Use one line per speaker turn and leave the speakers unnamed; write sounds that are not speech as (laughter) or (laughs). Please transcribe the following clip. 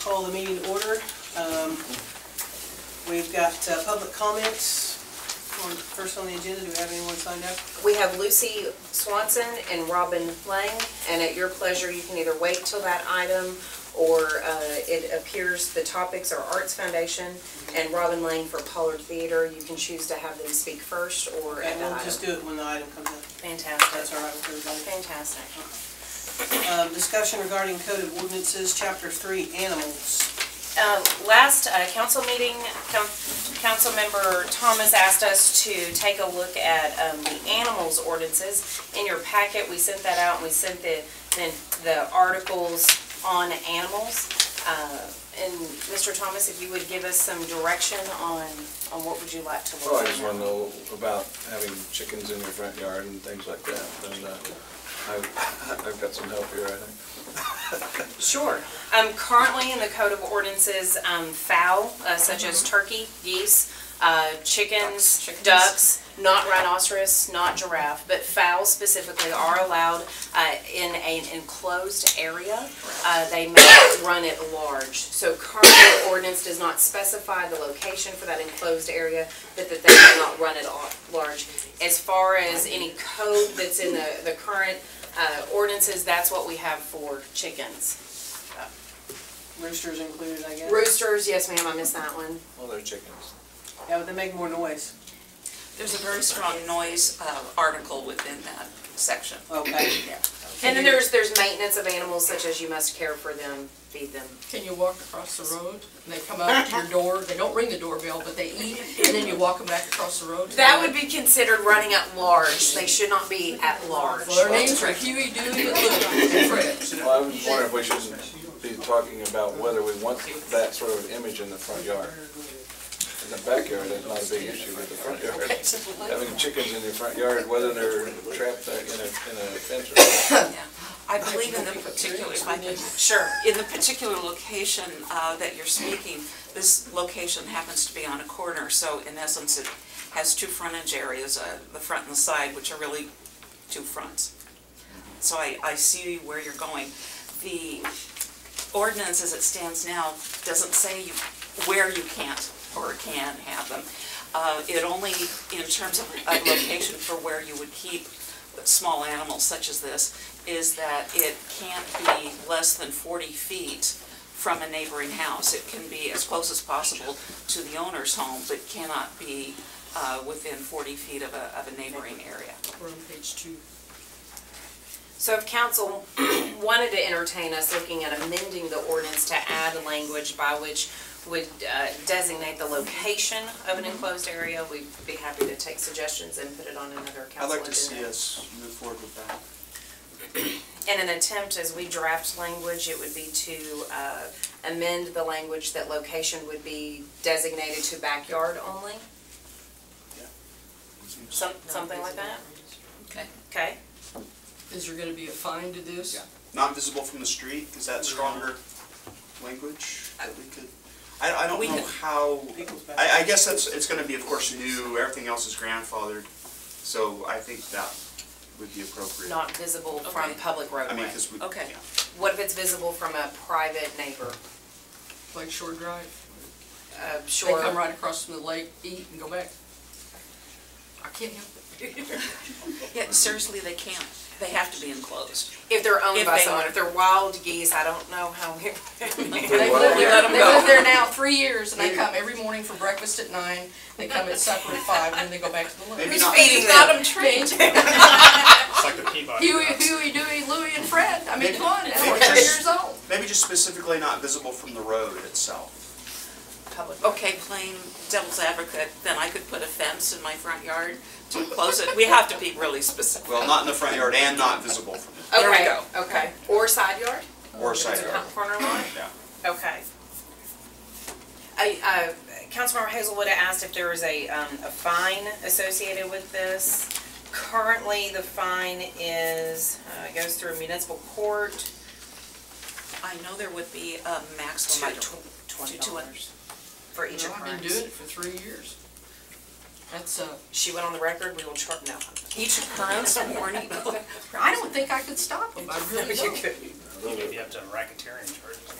call the meeting to order. Um, We've got uh, public comments. On- First on the agenda, do we have anyone signed up?
We have Lucy Swanson and Robin Lang, and at your pleasure, you can either wait till that item, or uh, it appears the topics are Arts Foundation and Robin Lang for Pollard Theater. You can choose to have them speak first or at
And
that
we'll just
item.
do it when the item comes up. That's
Fantastic,
all right with everybody.
fantastic.
Um, Discussion regarding code of ordinances, chapter three, animals.
Uh, Last uh, council meeting, com- Councilmember Thomas asked us to take a look at um, the animals ordinances. In your packet, we sent that out, and we sent the, then the articles on animals. Uh, And Mr. Thomas, if you would give us some direction on, on what would you like to look
Well, Oh, I
at?
just want to know about having chickens in your front yard and things like that, and uh, I've, I've got some help here, I think.
Sure. Um, currently in the code of ordinances, um, fowl, uh, such as turkey, geese, uh, chickens, ducks, not rhinoceros, not giraffe, but fowl specifically are allowed, uh, in an enclosed area. Uh, they may run at large. So current ordinance does not specify the location for that enclosed area, but that they may not run at all- large. As far as any code that's in the, the current, uh, ordinances, that's what we have for chickens.
Roosters included, I guess.
Roosters, yes ma'am, I missed that one.
Well, they're chickens.
Yeah, but they make more noise.
There's a very strong noise uh, article within that section.
Okay.
Yeah.
And then there's, there's maintenance of animals such as you must care for them, feed them.
Can you walk across the road? And they come up to your door, they don't ring the doorbell, but they eat, and then you walk them back across the road? to
That
the-
would be considered running at large, they should not be at large.
Well, their names are Huey, Dewey, and Louie, and Fred.
Well, I was wondering if we shouldn't be talking about whether we want that sort of image in the front yard. In the backyard, that's not a big issue, but the front yard, having chickens in your front yard, whether they're trapped there in a, in a fence or
(coughs)
not.
Yeah. I believe in the particular, if I could-
Sure.
in the particular location uh, that you're speaking, this location happens to be on a corner, so in essence, it has two frontage areas, uh, the front and the side, which are really two fronts. So I, I see where you're going. The ordinance as it stands now doesn't say you, where you can't or can have them. Uh, It only, in terms of a location for where you would keep small animals such as this, is that it can't be less than 40 feet from a neighboring house. It can be as close as possible to the owner's home, but cannot be uh, within 40 feet of a, of a neighboring area.
We're on page two.
So if council (clears throat) wanted to entertain us looking at amending the ordinance to add language by which would uh, designate the location of an enclosed area, we'd be happy to take suggestions and put it on another
I'd
council agenda.
like to see us move forward with that.
In an attempt, as we draft language, it would be to uh, amend the language that location would be designated to backyard only, some- something like that?
Okay.
Okay?
Is there gonna be a fine to this?
Yeah. Not visible from the street, is that stronger language that we could? I, I don't
We
know
could-
how,
People's back.
I, I guess that's, it's gonna be, of course, new, everything else is grandfathered, so I think that would be appropriate.
Not visible from
Okay.
public
I mean,
roadway.
because we.
Okay.
yeah.
What if it's visible from a private neighbor?
Like Shore Drive?
Uh,
They
Sure.
come right across from the lake, eat, and go back. I can't help it.
Yeah, seriously, they can't. They have to be enclosed.
If they're owned
If
by
they
someone,
are.
if they're wild geese, I don't know how we.
They
Well,
live
we
(laughs)
there,
let 'em
they
go.
live there now three years, and they come every morning for breakfast at nine, they come at supper at five, and then they go back to the lake.
Maybe
Who's
not.
feeding
Got
them?
'em trained.
It's like the Peabody.
Huey,
Ducks.
Huey, Dewey, Louie, and Fred. I mean,
Maybe-
come on, now
maybe
we're three
just-
years old.
Maybe just specifically not visible from the road itself.
Public.
Okay, plain devil's advocate, then I could put a fence in my front yard to enclose it. We have to be really specific.
Well, not in the front yard and not visible from
There we
Okay,
go.
Okay, or side yard?
the, or side yard.
Corner lot?
Yeah.
Okay. I, uh, Councilmember Hazelwood asked if there was a, um, a fine associated with this. Currently, the fine is, uh, it goes through municipal court,
I know there would be a maximum. I
Two-
don't-
twenty
two-
dollars for each
No, I've
occurrence.
been doing it for three years. That's, uh,
She went on the record, we will charge, no.
Each occurrence warning.
I don't think I could stop them, I really (laughs)
You
don't.
could-
Maybe up to racketeering charges.